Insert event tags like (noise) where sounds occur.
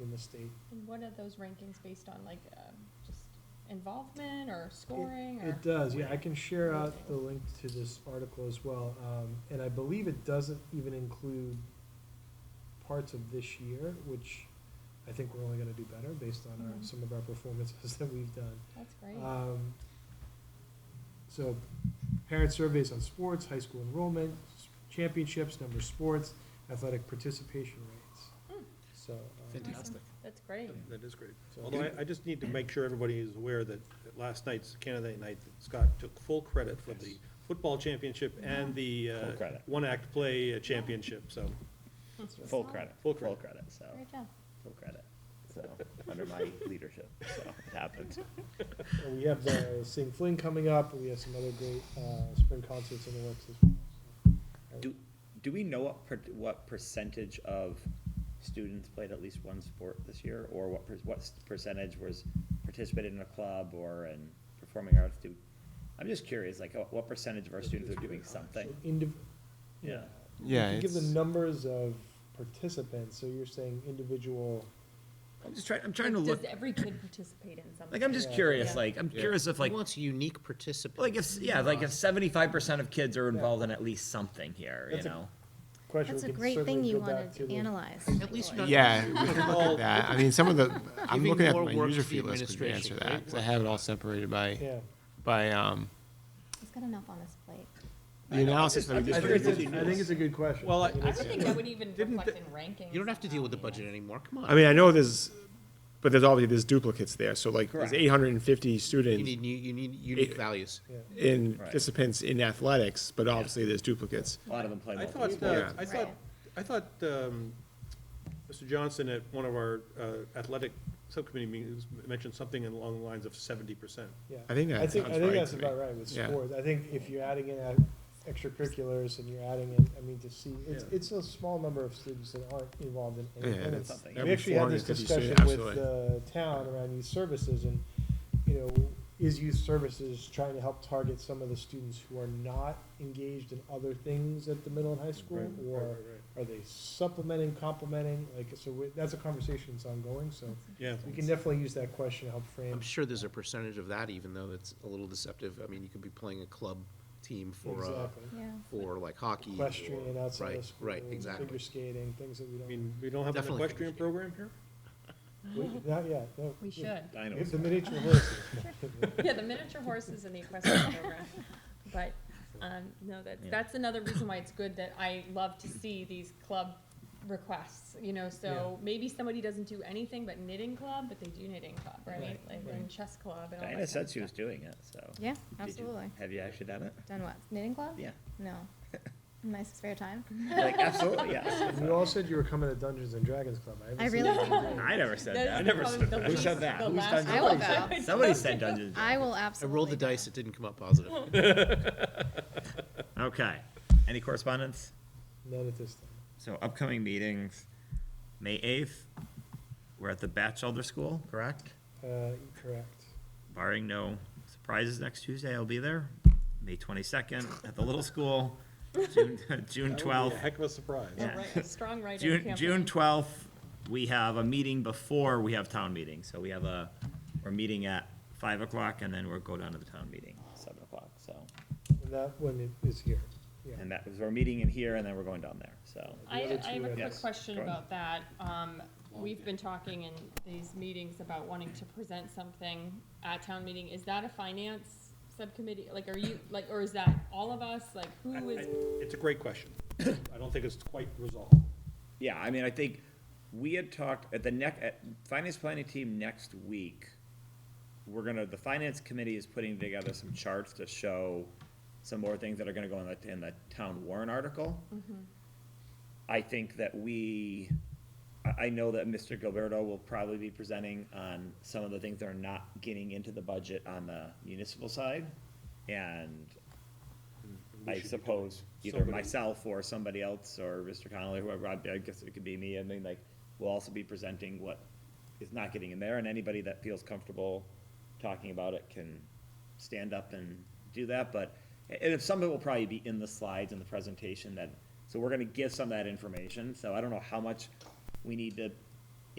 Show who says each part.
Speaker 1: in the state.
Speaker 2: And what are those rankings based on, like, uh, just involvement or scoring or?
Speaker 1: It does, yeah, I can share out the link to this article as well, um, and I believe it doesn't even include parts of this year, which I think we're only gonna do better based on our,
Speaker 2: Mhm.
Speaker 1: some of our performances (laughs) that we've done.
Speaker 2: That's great.
Speaker 1: Um, so, parent surveys on sports, high school enrollment, s- championships, number of sports, athletic participation rates.
Speaker 2: Mm.
Speaker 1: So, um,
Speaker 2: Fantastic. That's great.
Speaker 3: That is great.
Speaker 1: So-
Speaker 3: Although I, I just need to make sure everybody is aware that at last night's candidate night, that Scott took full credit for the football championship and the,
Speaker 4: Full
Speaker 3: uh,
Speaker 4: credit.
Speaker 3: one-act play uh, championship, so.
Speaker 4: Full
Speaker 2: Solid.
Speaker 4: credit, full
Speaker 3: Full
Speaker 4: credit,
Speaker 3: credit.
Speaker 4: so,
Speaker 2: Great job.
Speaker 4: full credit, so, under my (laughs) leadership, so, it happened.
Speaker 1: and we have the Sing Fling coming up, we have some other great, uh, spring concerts in the works as well. so.
Speaker 4: Do, do we know what per, what percentage of students played at least one sport this year, or what, per- what s- percentage was participated in a club or in performing arts? Do, I'm just curious, like, what- what percentage of our students are doing something?
Speaker 1: So indiv-
Speaker 4: Yeah.
Speaker 5: Yeah,
Speaker 1: You could give the
Speaker 5: it's-
Speaker 1: numbers of participants, so you're saying individual,
Speaker 4: I'm just trying, I'm trying to
Speaker 2: Like,
Speaker 4: look,
Speaker 2: Does every kid participate in something?
Speaker 4: like, I'm just
Speaker 1: Yeah.
Speaker 4: curious,
Speaker 2: Yeah.
Speaker 4: like, I'm
Speaker 5: Yeah.
Speaker 4: curious if like,
Speaker 6: wants unique participants.
Speaker 4: like if, yeah, like if seventy-five percent of kids are
Speaker 1: Yeah.
Speaker 4: involved in at least something here, you
Speaker 1: That's a-
Speaker 4: know?
Speaker 1: question.
Speaker 7: That's
Speaker 1: we
Speaker 7: a
Speaker 1: can
Speaker 7: great thing
Speaker 1: certainly
Speaker 7: you
Speaker 1: go back
Speaker 7: wanted to
Speaker 1: the-
Speaker 7: analyze.
Speaker 6: At least not.
Speaker 5: Yeah, we can look at that. I mean, some of the, I'm
Speaker 6: Giving
Speaker 5: looking at
Speaker 6: more
Speaker 5: my
Speaker 6: work
Speaker 5: user
Speaker 6: to the
Speaker 5: fee list could answer
Speaker 6: administration,
Speaker 5: that,
Speaker 6: right?
Speaker 5: 'cause I have it all separated by,
Speaker 1: Yeah.
Speaker 5: by, um,
Speaker 7: He's got enough on his plate.
Speaker 5: the analysis that we
Speaker 1: I
Speaker 5: just
Speaker 1: think it's,
Speaker 5: did.
Speaker 1: a- I think it's a good question.
Speaker 3: Well, I-
Speaker 1: mean,
Speaker 2: I
Speaker 1: it's-
Speaker 2: don't think I would even
Speaker 3: Didn't
Speaker 2: reflect in rankings.
Speaker 6: You don't have to deal with the
Speaker 2: somehow, you
Speaker 6: budget
Speaker 2: know.
Speaker 6: anymore, come on.
Speaker 5: I mean, I know there's, but there's obviously, there's duplicates there, so like,
Speaker 4: Correct.
Speaker 5: there's eight hundred and fifty
Speaker 6: You
Speaker 5: students
Speaker 6: need, new- you need unique
Speaker 5: It-
Speaker 6: values.
Speaker 5: in,
Speaker 4: Right.
Speaker 5: participants in athletics, but obviously there's duplicates.
Speaker 4: A lot of them play
Speaker 3: I
Speaker 4: multiple
Speaker 3: thought, uh,
Speaker 5: Yeah.
Speaker 3: I thought,
Speaker 2: Right.
Speaker 3: I thought, um, Mr. Johnson at one of our uh, athletic subcommittee meetings mentioned something along the lines of seventy percent.
Speaker 1: Yeah.
Speaker 5: I think that
Speaker 1: I think, I
Speaker 5: sounds
Speaker 1: think
Speaker 5: right
Speaker 1: that's
Speaker 5: to me.
Speaker 1: about right with
Speaker 5: Yeah.
Speaker 1: sports. I think if you're adding in uh, extracurriculars and you're adding in, I mean, to see, it's,
Speaker 3: Yeah.
Speaker 1: it's a small number of students that aren't involved in
Speaker 5: Yeah,
Speaker 1: any. and
Speaker 4: that's
Speaker 1: it's-
Speaker 4: something.
Speaker 1: We
Speaker 5: Every
Speaker 1: actually had this
Speaker 5: 450
Speaker 1: discussion
Speaker 5: student,
Speaker 1: with the town around youth services and, you know, is youth services trying to help target some of the students who are not engaged in other things at the middle and high school? Or are they supplementing, complementing? Like, so we- that's a conversation that's ongoing, so
Speaker 3: Yeah.
Speaker 1: we can definitely use that question to help frame.
Speaker 6: I'm sure there's a percentage of that, even though it's a little deceptive. I mean, you could be playing a club team for, uh,
Speaker 1: Exactly.
Speaker 7: Yeah.
Speaker 6: for like hockey. or-
Speaker 1: equestrian and outside
Speaker 6: Right,
Speaker 1: of school.
Speaker 6: right,
Speaker 1: and Figure
Speaker 6: exactly.
Speaker 1: skating, things that we
Speaker 3: I
Speaker 1: don't,
Speaker 3: mean, we don't have an
Speaker 6: Definitely.
Speaker 3: equestrian program here?
Speaker 1: we- not yet, no.
Speaker 2: We should.
Speaker 1: We have
Speaker 4: Dinos.
Speaker 1: the miniature horses.
Speaker 6: (laughs)
Speaker 1: (laughs)
Speaker 2: Yeah, the miniature horses and the
Speaker 4: (laughs)
Speaker 2: equestrian program. But, um, no, that,
Speaker 4: Yeah.
Speaker 2: that's another reason why it's good that I love to see these club requests, you know, so maybe somebody doesn't do anything but knitting club, but they do knitting club, right?
Speaker 1: Right,
Speaker 2: Like, and chess club and all that. kind
Speaker 4: Diana
Speaker 2: of
Speaker 4: said she was
Speaker 2: stuff.
Speaker 4: doing it, so.
Speaker 7: Yeah,
Speaker 4: Did you-
Speaker 7: absolutely.
Speaker 4: Have you actually done it?
Speaker 7: Done what? Knitting club?
Speaker 4: Yeah.
Speaker 7: No. In my spare time?
Speaker 4: Like, absolutely, yes. (laughs)
Speaker 1: You all said you were coming to Dungeons and Dragons Club. haven't
Speaker 7: I
Speaker 1: seen
Speaker 7: really
Speaker 1: you.
Speaker 7: will.
Speaker 4: I never said
Speaker 2: That
Speaker 4: that.
Speaker 2: is probably the
Speaker 4: Who
Speaker 2: least-
Speaker 4: said that?
Speaker 2: the
Speaker 4: Who's
Speaker 2: last (laughs)
Speaker 4: done
Speaker 7: I will (laughs)
Speaker 4: Dungeons?
Speaker 7: go.
Speaker 2: Dragons?
Speaker 4: Somebody said
Speaker 2: (laughs)
Speaker 4: Dungeons. and
Speaker 7: I will
Speaker 6: I
Speaker 7: absolutely.
Speaker 6: rolled the
Speaker 7: go.
Speaker 6: dice, it didn't come up positive.
Speaker 4: Dragons. Okay. Any correspondence?
Speaker 1: None at this time.
Speaker 4: So upcoming meetings, May eighth, we're at the Batchelder School, correct?
Speaker 1: Uh, correct.
Speaker 4: Barring no surprises next Tuesday, I'll be there. May twenty-second at the Little School, June, (laughs) June
Speaker 3: That would be a
Speaker 4: twelfth.
Speaker 3: Heck of a surprise.
Speaker 2: A
Speaker 4: Yeah.
Speaker 2: write- a Strong writing
Speaker 4: June,
Speaker 2: campaign.
Speaker 4: June twelfth, we have a meeting before we have town meeting, so we have a, we're meeting at five o'clock, and then we'll go down to the town meeting, seven o'clock, so.
Speaker 1: And that one i- is here. Yeah.
Speaker 4: And that was our meeting in here, and then we're going down there, so.
Speaker 2: I,
Speaker 1: other
Speaker 2: I have
Speaker 1: two,
Speaker 2: a
Speaker 1: I
Speaker 2: quick
Speaker 4: guess.
Speaker 2: question
Speaker 4: Go ahead.
Speaker 2: about that. Um, we've been talking in these meetings about wanting to present something at town meeting. Is that a finance subcommittee? Like, are you, like, or is that all of us? Like,
Speaker 3: I-
Speaker 2: who is?
Speaker 3: I- It's a
Speaker 2: (coughs)
Speaker 3: great question. I don't think it's quite resolved.
Speaker 4: Yeah, I mean, I think we had talked at the neck, at finance planning team next week, we're gonna, the finance committee is putting together some charts to show some more things that are gonna go in the, in the town warrant article. I think that we, I, I know that Mr. Gilberto will probably be presenting on some of the things that are not getting into the budget on the municipal side. And
Speaker 3: Mm, We
Speaker 4: I
Speaker 3: should be doing
Speaker 4: suppose either
Speaker 3: somebody-
Speaker 4: myself or somebody else or Mr. Connolly, whoever, I I guess it could be me, I mean, like, we'll also be presenting what is not getting in there, and anybody that feels comfortable talking about it can stand up and do that, but, and if some of it will probably be in the slides in the presentation that, so we're gonna give some of that information, so I don't know how much we need to